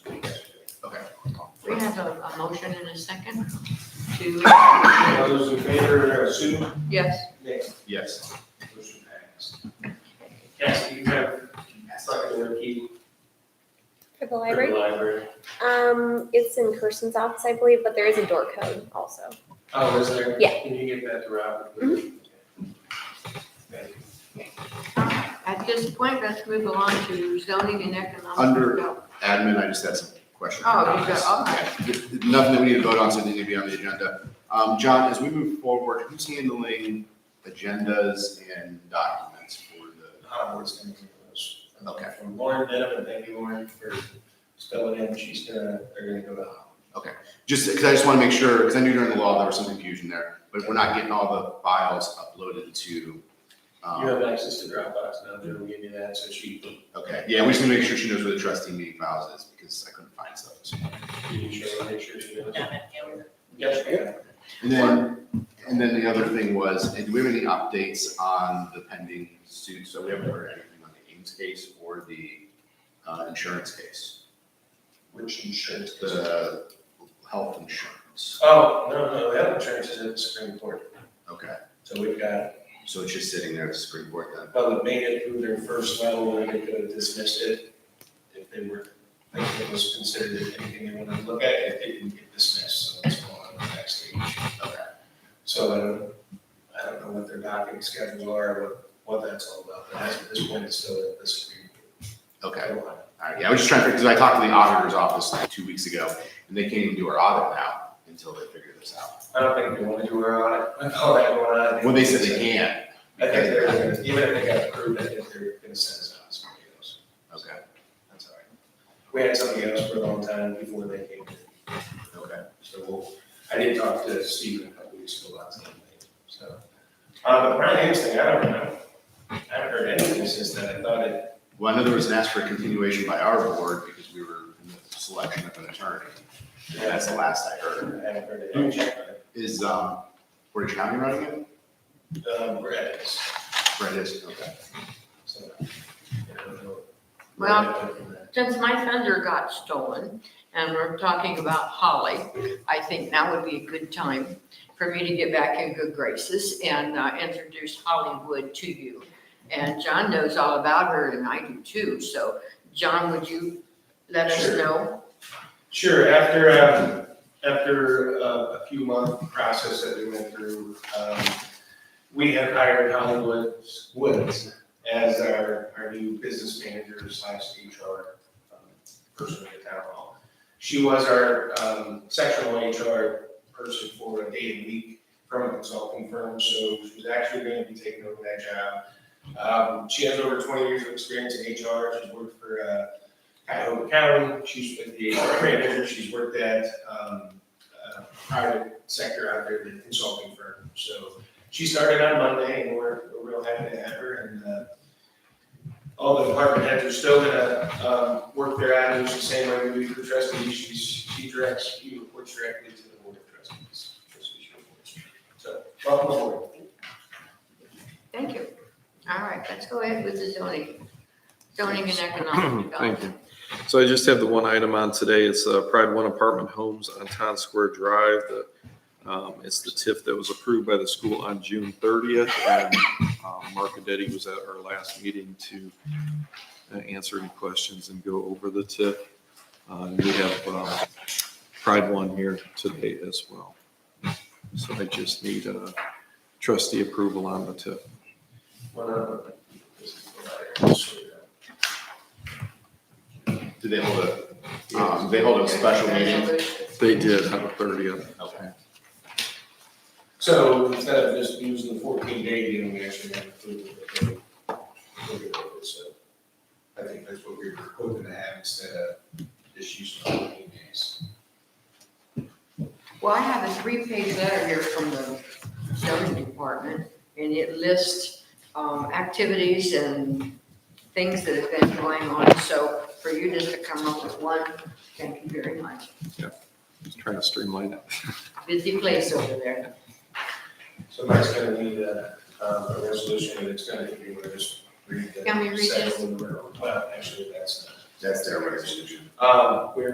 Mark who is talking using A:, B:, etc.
A: We have a, a motion and a second to,
B: All those in favor, uh, Sue?
A: yes,
B: Nick?
C: Yes.
B: Motion passed. Cassie, you have second key
D: For the
B: for the
D: library?
B: library.
D: Um, it's in Kirsten's office, I believe, but there is a door code also.
B: Oh, is there?
D: Yeah. Mm-hmm.
B: Can you get that to Robin? Thank you.
A: at this point, let's move along to zoning and economic.
C: Under-
A: development.
C: Admin, I just had some questions.
A: Oh, you got, all right.
C: Yeah, Nothing that we need to vote on, so it doesn't need to be on the agenda. Um, John, as we move forward, who's handling agendas and documents for the,
B: Howard's gonna do those.
C: Okay.
B: From Lauren Denham, thank you, Lauren, for spelling in, she's gonna, they're gonna go to Howard.
C: just, because I just want to make sure, because I knew during the law there was some confusion there, but we're not getting all the files uploaded to,
B: You have
C: um,
B: access to Dropbox now, they'll give you that, so she
C: okay, yeah, we just need to make sure she knows where the trustee meeting files is, because I couldn't find stuff.
B: can show her, make sure she knows.
E: Down at Howard.
B: Yes, yeah.
C: And then, and then the other thing was, and do we have any updates on the pending suit? So we haven't heard anything on the Ames case or the uh, insurance case,
B: Which insurance?
C: the health insurance.
B: Oh, no, no, that insurance is at the Supreme Court,
C: Okay,
B: so we've got,
C: so it's just sitting there at the Supreme Court then?
B: well, it made it through their first level, and they could have dismissed it if they were, if it was considered anything they wanted to look at, it didn't get dismissed, so it's going on the next stage.
C: Okay,
B: So I don't, I don't know what their docking schedules are, what, what that's all about, but as of this point, it's still at the Supreme
C: okay.
B: Court.
C: All right, yeah, I was just trying to, because I talked to the auditor's office like two weeks ago, and they can't even do our audit now until they figure this out.
B: I don't think they want to do our audit, with all that going on. I think-
C: Well, they said they can.
B: I think they're gonna, even if they got approved, I think they're gonna send us out to somebody else.
C: Okay,
B: That's all right. We had somebody else for a long time before they came in,
C: okay.
B: so we'll, I did talk to Steven a couple weeks ago about something, so. Um, but the thing, I don't know, I haven't heard anything since then, I thought it,
C: Well, I know there was an ask for a continuation by our board because we were in the selection of an attorney. And That's the last I
B: I
C: heard.
B: haven't heard it, I checked on it.
C: Is, um, Portage County running it?
B: Um, Brad is,
C: Brett is, okay.
B: so. you know, uh,
A: Well- Since my thunder got stolen, and we're talking about Holly, I think now would be a good time for me to get back in good graces and uh, introduce Hollywood to you. And John knows all about her, and I do too, so John, would you let us
B: Sure.
A: know?
B: Sure, after, um, after uh, a few month process that we went through, um, we have hired Holly Woods, Woods as our, our new business manager slash HR um, person at town hall. She was our, um, sectional HR person for a day a week from a consulting firm, so she's actually gonna be taking over that job. Um, she has over twenty years of experience in HR, she's worked for, uh, Cuyahoga County, she's with the HR manager, she's worked at, um, uh, private sector out there, the consulting firm. So she started on Monday and we're, we're real happy to have her and, uh, all the department heads are still gonna, um, work their avenues the same way we do for trustees. She's, she directs, she reports directly to the board of trustees. That's what she reports. So, welcome aboard.
A: Thank you. All right, let's go ahead with the zoning, zoning and economic
F: Thank
A: development.
F: you. So I just have the one item on today. It's uh, Pride One Apartment Homes on Town Square Drive. The, um, It's the TIF that was approved by the school on June 30th. And um, Mark Adetti was at our last meeting to uh, answer any questions and go over the TIF. Uh, and We have um, Pride One here today as well. So I just need uh, trustee approval on the TIF.
B: One other- this is the letter. So, uh,
C: Do they hold a, um, they hold a special meeting?
A: Resolution.
F: They did on the 30th.
C: Okay.
B: So instead of just using the fourteen day deal, we actually have approval of it. Look at it, So I think that's what we were hoping to have instead of just using fourteen days.
A: Well, I have a three-page letter here from the zoning department, and it lists, um, activities and things that have been going on, so for you just to come up with one, thank you very much.
F: Just Trying to streamline it.
A: Busy place over there.
B: So Mike's gonna need a, um, a resolution, and it's gonna be where it's.
A: Can we read this?
B: Well, actually, that's
C: That's their resolution.
B: not. Um, we're